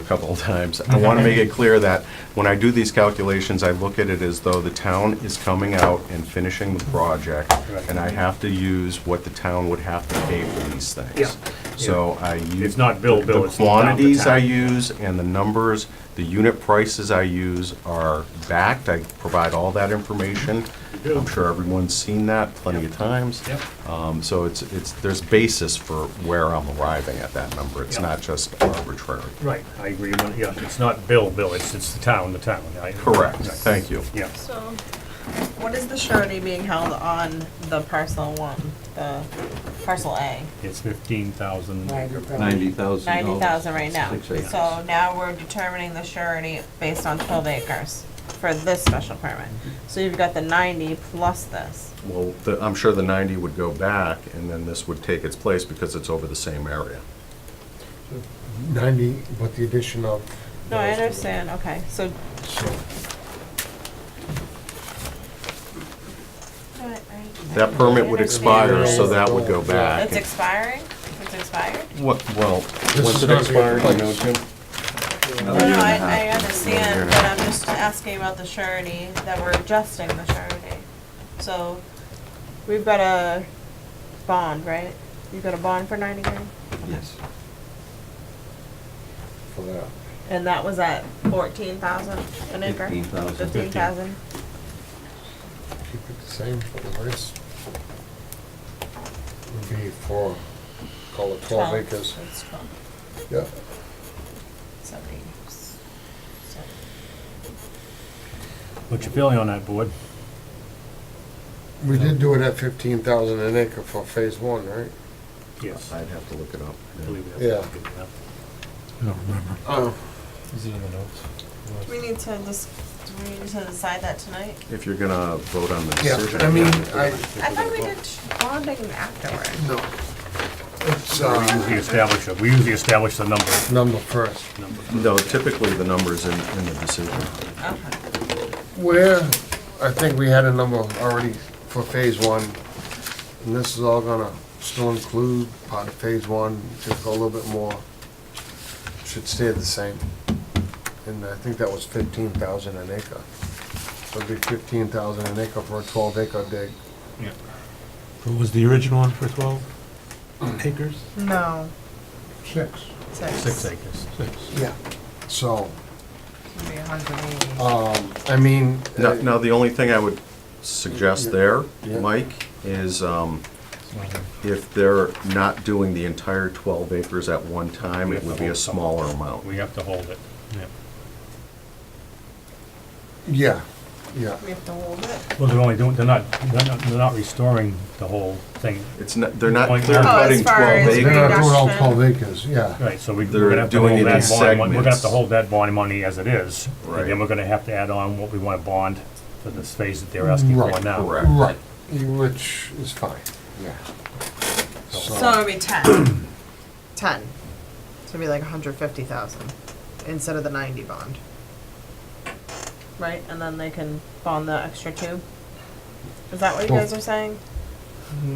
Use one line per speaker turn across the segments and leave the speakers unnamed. couple of times. I want to make it clear that when I do these calculations, I look at it as though the town is coming out and finishing the project, and I have to use what the town would have to pay for these things.
Yeah.
So I use.
It's not Bill, Bill, it's
The
the town, the
quantities I
town.
use and the numbers, the unit prices I use are backed. I provide all that information.
You do.
I'm sure everyone's seen that plenty of times.
Yep.
Um, So it's, it's, there's basis for where I'm arriving at that number. It's
Yeah.
not just arbitrary.
Right, I agree with, yeah, it's not Bill, Bill, it's, it's the town, the town. I-
Correct,
Right.
thank you.
Yeah,
So, what is the surety being held on the parcel one, the parcel A?
it's fifteen thousand.
Ninety thousand
Ninety thousand right now.
Six acres.
So now we're determining the surety based on twelve acres for this special permit. So you've got the ninety plus this.
Well, the- I'm sure the 90 would go back, and then this would take its place because it's over the same area.
90, but the addition of.
No, I understand, okay, so.
So,
That permit would expire, so that would go back.
It's expiring? It's expired?
What, well,
This
once
is
it
gonna be
expires, you know,
replaced.
Jim?
No, no, I, I understand, but I'm just asking about the surety, that we're adjusting the surety. So, we've got a bond, right? You've got a bond for ninety grand?
Yes.
For that.
And that was at fourteen thousand an acre?
15,000.
Fifteen thousand?
Keep it the same for the rest. Would be for, call it 12 acres.
That's twelve,
Yeah.
seventy. s- seventy.
What's your feeling on that, board?
We did do it at 15,000 an acre for phase one, right?
Yes.
I'd have to look it up.
I believe we have-
Yeah. Oh.
Do we need to just, do we need to decide that tonight?
If you're gonna vote on the
Yeah,
decision.
I mean, I,
I thought we did bonding afterward.
no. It's,
We
uh,
usually establish, it. we usually establish the number.
number first.
number.
No, typically, the number's in, in the decision.
Okay.
Where, I think we had a number already for phase one, and this is all gonna still include part of phase one, just go a little bit more. Should stay the same. And I think that was fifteen thousand an acre. So it'd be fifteen thousand an acre for a twelve acre dig.
Yeah.
What was the original one for 12 acres?
No,
Six.
Six acres.
Yeah. So,
Maybe a hundred and eighty.
Uh,
um, I mean.
Now,
uh,
now, the only thing I would suggest there,
Yeah.
Mike, is um, if they're not doing the entire 12 acres at one time, it would be a smaller amount.
We have to hold it.
Yeah, yeah.
We have to hold it.
Well, they're only doing, they're not, they're not, they're not restoring the whole thing.
It's not, they're not
Oh, as
clear cutting
far
12
as
They're
acres.
not doing all
Reduction.
twelve acres, yeah.
Right, so we-
They're
we're gonna have to
doing
hold
it in
that bond, mon- we're gonna have
segments.
to hold that bond money as it is.
Right.
And then we're gonna have to add on what we wanna bond for this phase that they're asking for
Right,
now.
correct.
Right, which is fine, yeah.
So it'd be ten. ten. So it'd be like hundred fifty thousand instead of the ninety bond. Right, and then they can bond the extra two? Is that what you
Well-
guys are saying?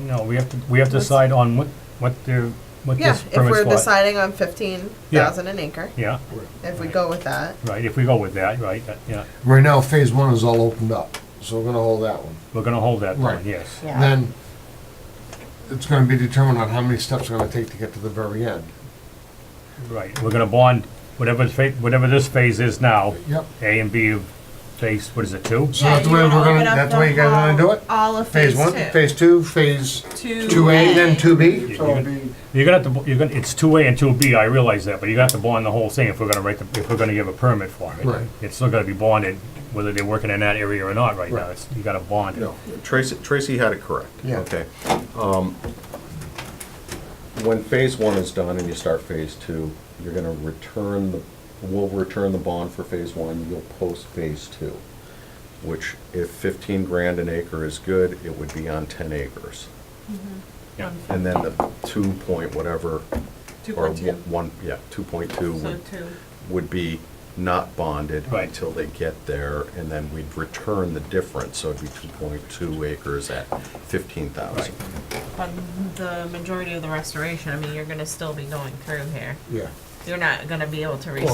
No, we have to, we have to
Let's-
decide on what, what they're, what
Yeah,
this
if we're
permit's for.
deciding on fifteen thousand an acre,
Yeah,
if we go with that.
right, if we go with that, right, that- yeah,
Right now, phase one is all opened up, so we're gonna hold that one.
we're gonna hold that
Right.
bond, yes.
Then, it's gonna be determined on how many steps we're gonna take to get to the very end.
Right, we're gonna bond whatever, the fa- whatever this phase is now,
Yep.
A and B of phase, what is it, two?
So that's the way we're gonna, that's the way you guys wanna do it?
All of
Phase one, phase two, phase
two.
two A, then two B?
You- you're gonna- You're gonna have to, bo- you're gonna, it's two A and two B, I realize that, but you're gonna have to bond the whole thing if we're gonna write, the if we're gonna give a permit for it.
Right.
It's still gonna be bonded, whether they're working in that area or not right now, it's, you gotta bond it.
No.
Tracy, Tracy had it correct.
Yeah.
Okay. Um, When phase one is done and you start phase two, you're gonna return the, we'll return the bond for phase one, you'll post phase two, which if fifteen grand an acre is good, it would be on ten acres.
Yeah.
And then the two point whatever.
Two
or
point two.
One, yeah, two point two
So
would,
two.
would be not bonded
Right.
until they get there, and then we'd return the difference, so it'd be two point two acres at fifteen thousand.
But the majority of the restoration, I mean, you're gonna still be going through here.
Yeah.
You're not gonna be able to restore.